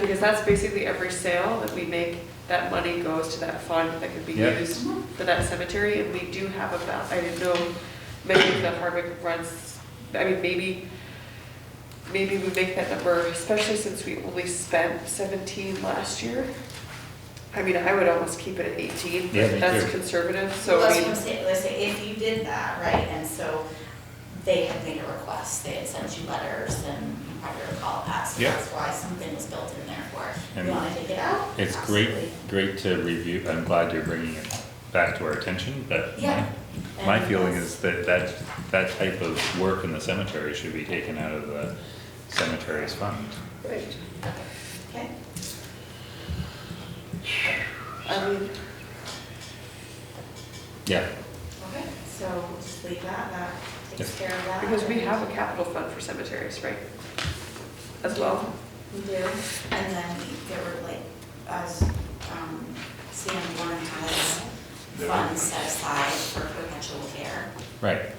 because that's basically every sale that we make, that money goes to that fund that could be Yeah. used for that cemetery, and we do have about, I didn't know, maybe the Hardwick runs, I mean, maybe, maybe we make that number, especially since we only spent seventeen last year. I mean, I would almost keep it at eighteen, Yeah, me but that's too. conservative, so Well, I that's mean. what I'm saying, let's say, if you did that, right, and so they had made a request, they had sent you letters, and you probably recall that, so Yeah. that's why something was built in there for, it. And you wanna take it out? It's great, Absolutely. great to review, I'm glad you're bringing it back to our attention, but Yeah. my, my And uh, feeling that's- is that that, that type of work in the cemetery should be taken out of the cemetery's fund. Right. Okay, I mean, Yeah, okay, so just leave that, that takes care of that. because we have a capital fund for cemeteries, right? As well. We do, and then there were like, us, um, Sam Warren has funds set aside for perpetual care. right,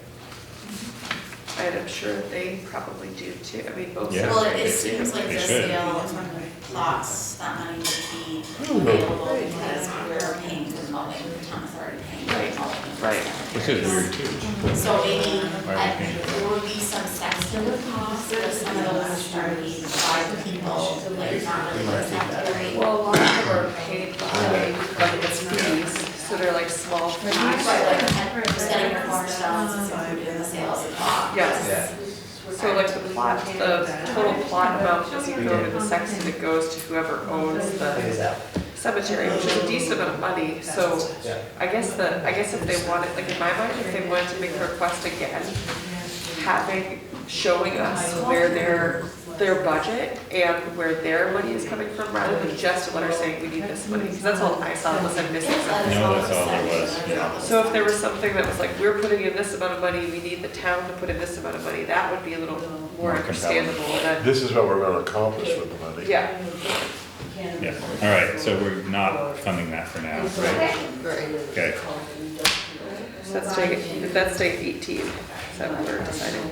And I'm sure they probably do too, I mean, both. Yeah. Well, it- it cemeteries do. seems like They the should. sale of lots, that money would be available because we're paying for the mowing, the town authority paying for the mowing. Right, and right. which is weird too. So maybe, Why I, we can't do there would be some sensitive costs of some of those charities by people, like not really necessary. Well, a lot of them are paid by, like, it's fees, so they're like small fees. Right, like ten percent of your cornerstones is included in the sales of lots. Yes. So like the plot, the total plot amount doesn't go to the section, it goes to whoever owns the cemetery, which is a decent amount of money, so I guess the, I guess if they wanted, like in my mind, if they wanted to make a request again, having, showing us where their, their budget and where their money is coming from, rather than just a letter saying, we need this money, because that's all I saw, unless I'm missing Yes, that something. is No, all that's all there was, section, that is all yeah. So if there was something that was like, we're putting in this amount of money, we need the town to put in this amount of money, that would be a little More more compelling. understandable than, This is what we're gonna accomplish with the money. yeah. Yeah, all right, so we're not funding that for now, right? Okay. So that's taking, that's taking eighteen, is that what we're deciding?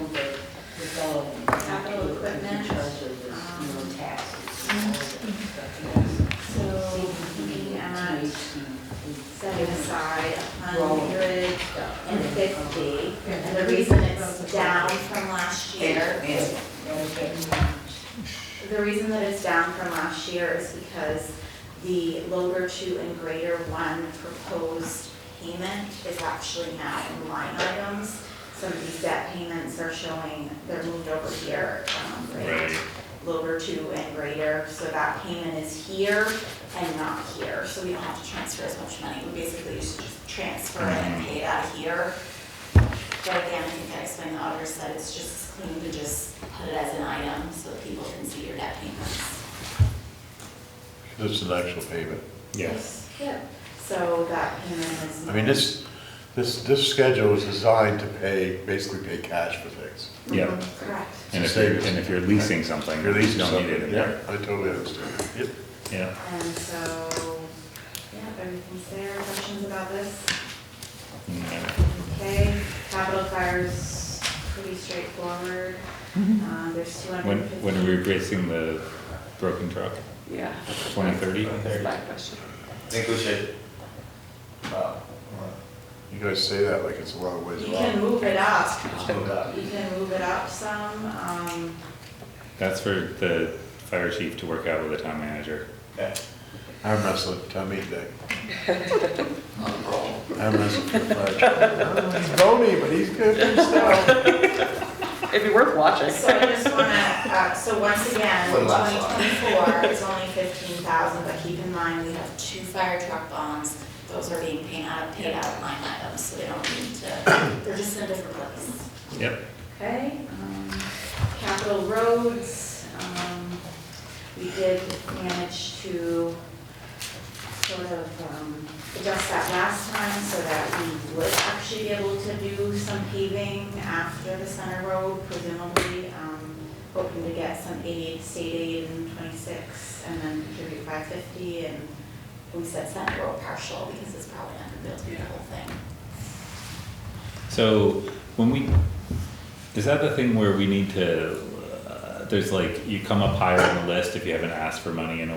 Capital equipment. um, So looking at setting aside a hundred and fifty, and the reason it's down from last year, the reason that it's down from last year is because the lower two and greater one proposed payment is actually now in line items. Some of these debt payments are showing, they're moved over here, um, right? Right, lower two and greater, so that payment is here and not here, so we don't have to transfer as much money, we basically just transfer it and pay it out of here. But again, I think I explained, the auditor said it's just clean to just put it as an item, so that people can see your debt payments. This is an actual payment. yes, Yeah. So that payment is. I mean, this, this, this schedule was designed to pay, basically pay cash for things. yeah. Mm-hmm. Correct. And if you're, and if you're leasing something, you You're leasing don't need it something, in yeah, there. I totally understand. Yep. Yeah, And so, yeah, everything's there, questions about this? No. Okay, capital fire's pretty straightforward. Uh, There's two When, hundred and fifty. when are we replacing the broken truck? Yeah, Twenty thirty? that's my question. I think we should, uh, You guys say that like it's a long ways You off. can move it up. move that. You can move it up some, um, That's for the fire chief to work out with the town manager. Okay. I'm wrestling, tell me that. Not a problem. I'm wrestling for the fire truck. He's bony, but he's good for himself. It'd be worth watching. so I just wanna, uh, so once again, Wouldn't twenty last long. twenty-four, it's only fifteen thousand, but keep in mind, we have two fire truck bonds. Those are being paid out, paid out of line items, so they don't need to, they're just in a different place. Yep. Okay, um, capital roads, um, we did manage to sort of, um, adjust that last time so that we would actually be able to do some paving after the center road, presumably, um, hoping to get some aid, state aid in twenty-six, and then contribute five fifty, and we said center road partial, because it's probably not gonna be able to do the whole thing. So when we, is that the thing where we need to, uh, there's like, you come up higher on the list if you haven't asked for money in a